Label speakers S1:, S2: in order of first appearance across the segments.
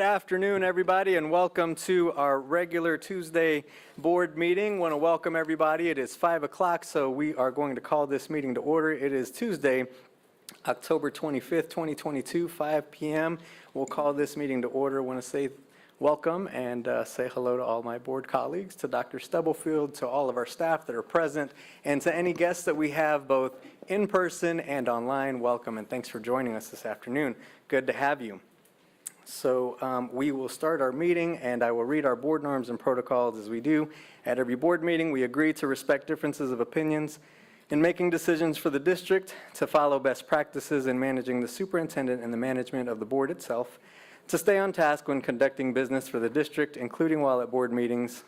S1: afternoon, everybody, and welcome to our regular Tuesday board meeting. Want to welcome everybody. It is 5 o'clock, so we are going to call this meeting to order. It is Tuesday, October 25th, 2022, 5 PM. We'll call this meeting to order. Want to say welcome and uh, say hello to all my board colleagues, to Dr. Stubblefield, to all of our staff that are present, and to any guests that we have both in person and online. Welcome and thanks for joining us this afternoon. Good to have you. So um, we will start our meeting, and I will read our board norms and protocols as we do. At every board meeting, we agree to respect differences of opinions in making decisions for the district, to follow best practices in managing the superintendent and the management of the board itself, to stay on task when conducting business for the district, including while at board meetings,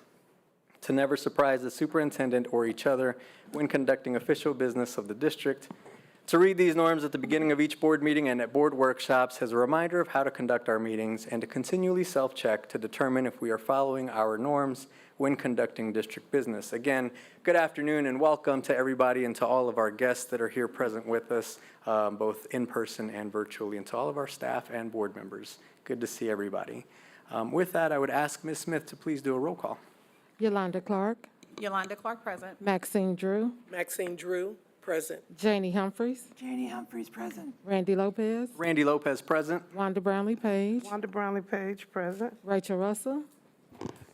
S1: to never surprise the superintendent or each other when conducting official business of the district, to read these norms at the beginning of each board meeting and at board workshops as a reminder of how to conduct our meetings, and to continually self-check to determine if we are following our norms when conducting district business. Again, good afternoon and welcome to everybody and to all of our guests that are here present with us, um, both in person and virtually, and to all of our staff and board members. Good to see everybody. Um, With that, I would ask Ms. Smith to please do a roll call.
S2: Yolanda Clark,
S3: Yolanda Clark, present.
S2: Maxine Drew,
S4: Maxine Drew, present.
S2: Janie Humphries,
S5: Janie Humphries, present.
S2: Randy Lopez,
S1: Randy Lopez, present.
S2: Wanda Brownlee Page,
S5: Wanda Brownlee Page, present.
S2: Rachel Russell,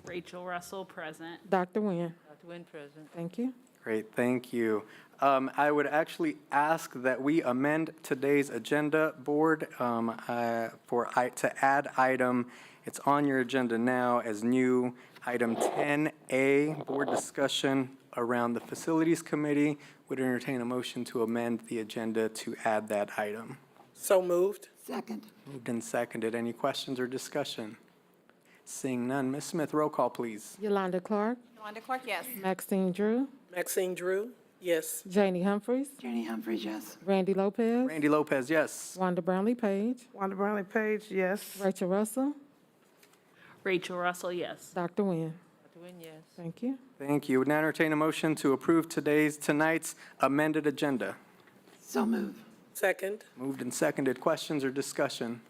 S6: Rachel Russell, present.
S2: Dr. Nguyen. Dr. Nguyen, present. Thank you.
S1: Great, thank you. Um, I would actually ask that we amend today's agenda board um, uh, for, i- to add item, it's on your agenda now as new, item 10A, board discussion around the facilities committee. Would entertain a motion to amend the agenda to add that item.
S4: So moved.
S5: Second.
S1: Moved and seconded. Any questions or discussion? Seeing none. Ms. Smith, roll call, please.
S2: Yolanda Clark,
S3: Yolanda Clark, yes.
S2: Maxine Drew,
S4: Maxine Drew, yes.
S2: Janie Humphries,
S5: Janie Humphries, yes.
S2: Randy Lopez,
S1: Randy Lopez, yes.
S2: Wanda Brownlee Page,
S5: Wanda Brownlee Page, yes.
S2: Rachel Russell,
S6: Rachel Russell, yes.
S2: Dr. Nguyen. Dr. Nguyen, yes. Thank you.
S1: Thank you. Would now entertain a motion to approve today's, tonight's amended agenda.
S5: So move.
S4: Second,
S1: Moved and seconded. Questions or discussion?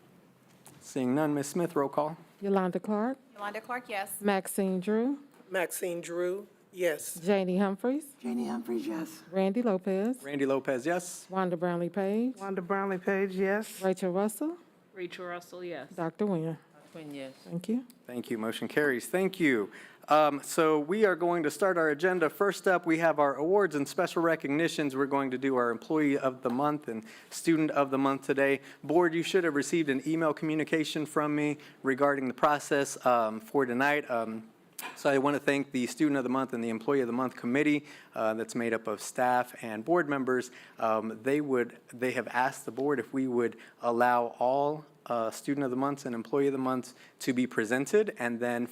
S1: Seeing none, Ms. Smith, roll call.
S2: Yolanda Clark,
S3: Yolanda Clark, yes.
S2: Maxine Drew,
S4: Maxine Drew, yes.
S2: Janie Humphries,
S5: Janie Humphries, yes.
S2: Randy Lopez,
S1: Randy Lopez, yes.
S2: Wanda Brownlee Page,
S5: Wanda Brownlee Page, yes.
S2: Rachel Russell,
S6: Rachel Russell, yes.
S2: Dr. Nguyen. Dr. Nguyen, yes. Thank you.
S1: Thank you. Motion carries. Thank you. Um, So we are going to start our agenda. First up, we have our awards and special recognitions. We're going to do our Employee of the Month and Student of the Month today. Board, you should have received an email communication from me regarding the process um, for tonight. Um, So I want to thank the Student of the Month and the Employee of the Month Committee uh, that's made up of staff and board members. Um, They would, they have asked the board if we would allow all uh, Student of the Months and Employee of the Months to be presented, and then